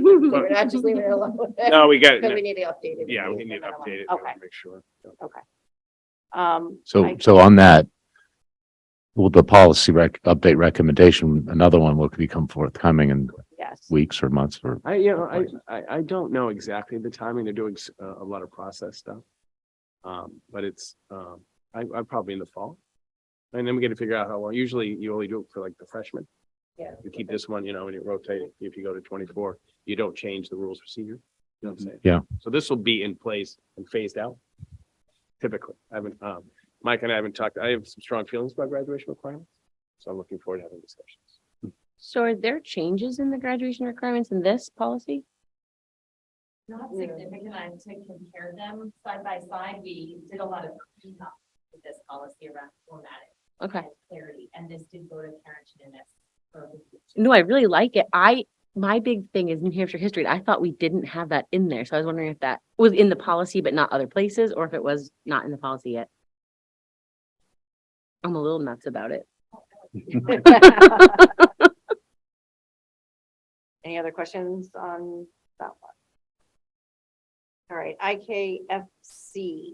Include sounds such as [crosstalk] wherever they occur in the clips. We're not just leaving [laughs] it alone. No, we got, But we it. need to update it. yeah, we Leave need to that alone. update it. Okay, Make sure. um. So, I- so on that, will the policy rec, update recommendation, another one will become forthcoming in Yes. weeks or months or? I, you know, I, I, I don't know exactly the timing. They're doing s- a, a lot of process stuff. Um, but it's, um, I, I probably in the fall. And then we get to figure out how long. Usually you only do it for like the freshmen. Yeah. You keep this one, you know, and you rotate it. If you go to twenty-four, you don't change the rules procedure. You know what I'm saying? Yeah. So this will be in place and phased out. Typically, I haven't, um, Mike and I haven't talked, I have some strong feelings about graduation requirements. So I'm looking forward to having discussions. So are there changes in the graduation requirements in this policy? Not significant, I to compare them side by side, we did a lot of cleanup with this policy around formatting Okay. and clarity, and this did go to Karen Chinnis. No, I really like it. I, my big thing is New Hampshire history. and I thought we didn't have that in there. So I was wondering if that was in the policy, but not other places, or if it was not in the policy yet. I'm a little nuts about it. [laughs] Any other questions on that one? All right, IKFC,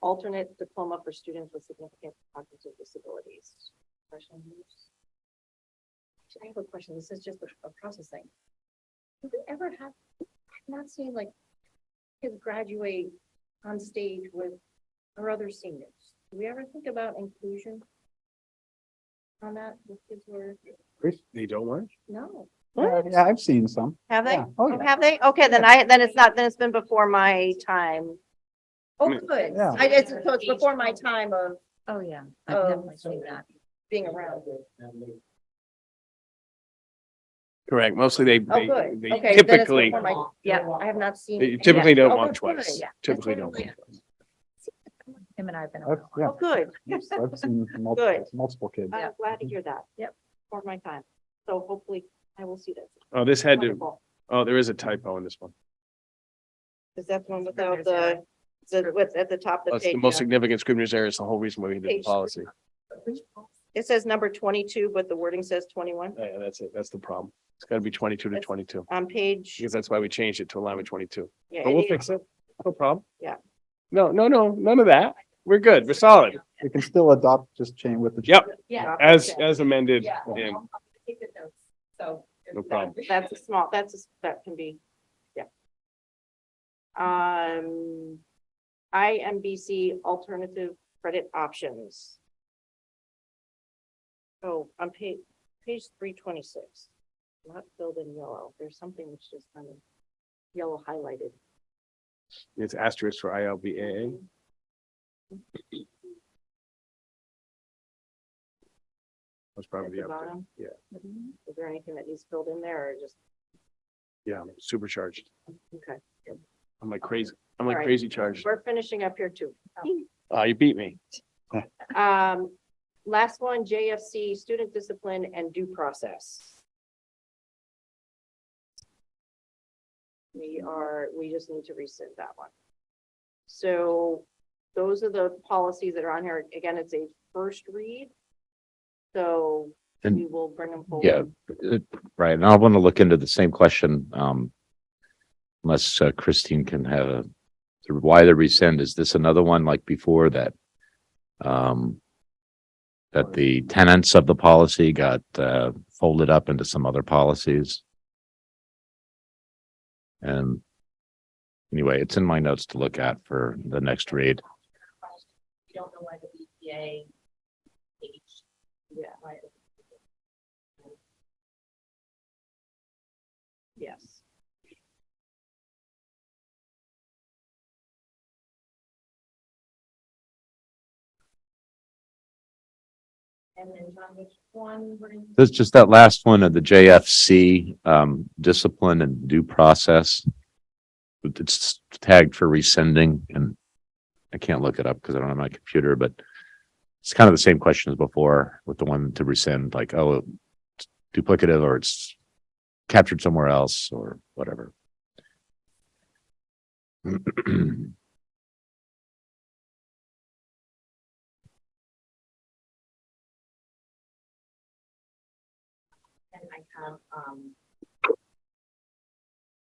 alternate diploma for students with significant cognitive disabilities. Questions? Actually, I have a question. This is just a a process thing. Do we ever have, I've not seen like kids graduate on stage with our other seniors. Do we ever think about inclusion on that with kids who are, They don't want? no? Yeah, yeah, I've seen some. Have they? Yeah. Oh, yeah. Have they? Okay, then I, then it's not, then it's been before my time. Oh, Mm. good. Yeah. I, it's, so it's before my time of Oh, yeah. I've Oh, definitely seen that. being around. Correct. Mostly they, Oh, they, good. they Okay. then it's typically, before my- Yeah, I have not seen. they it. typically Oh, don't want good, good, twice. yeah. Typically don't. Absolutely. want twice. Him and I have been. I've- Oh, Yeah, [laughs] good. I've [laughs] seen multiple, multiple kids. Mm-hmm. I'm glad to hear that. Yep. For my time. So hopefully I will see that. Oh, this had to, Wonderful. oh, there is a typo in this one. Is that the one without the, the, with, at the top of the That's page? the most yeah. significant scrivener's error is the whole reason why we did the Page policy. It says number twenty-two, but the wording says twenty-one Yeah, that's it. That's the problem. It's gotta be twenty-two to That's- twenty-two, on page. because that's why we changed it to align with twenty-two. yeah, But we'll it- fix it. No problem. Yeah. No, no, no, none of that. We're good. We're solid. We can still adopt just chain with the. Yep, Yeah. as, as amended Yeah. in I'll- I'll take the notes, So. No problem. That's a small, that's, a that can be, yeah. Um, IMBC alternative credit options. Oh, on page, page three twenty-six, not filled in yellow, there's something which is kind of yellow highlighted. It's asterisk for ILBAA. That's At probably the the update. bottom. Mm-hmm. yeah. Is there anything that needs filled in there or just, Yeah, I'm supercharged. okay, I'm like crazy. I'm like All right. crazy charged. we're finishing up here too. Ah, you beat me. Um, last one, JFC, student discipline and due process. We are, we just need to rescind that one. So those are the policies that are on here. Again, it's a first read. So And- we will bring them forward. Yeah, uh, right. And I want to look into the same question, um, unless uh, Christine can have a, the- why the rescind? Is this another one like before that? Um, that the tenants of the policy got, uh, folded up into some other policies? And anyway, it's in my notes to look at for the next read. We don't know why the BPA. aged. Yeah. Why it- Yes. And then John, which one were you? That's just that last one of the JFC, um, discipline and due process. It's tagged for rescinding and I can't look it up because I don't have my computer, but it's kind of the same question as before with the one to rescind, like, oh, it's duplicative or it's [clears throat] captured somewhere else or whatever. um,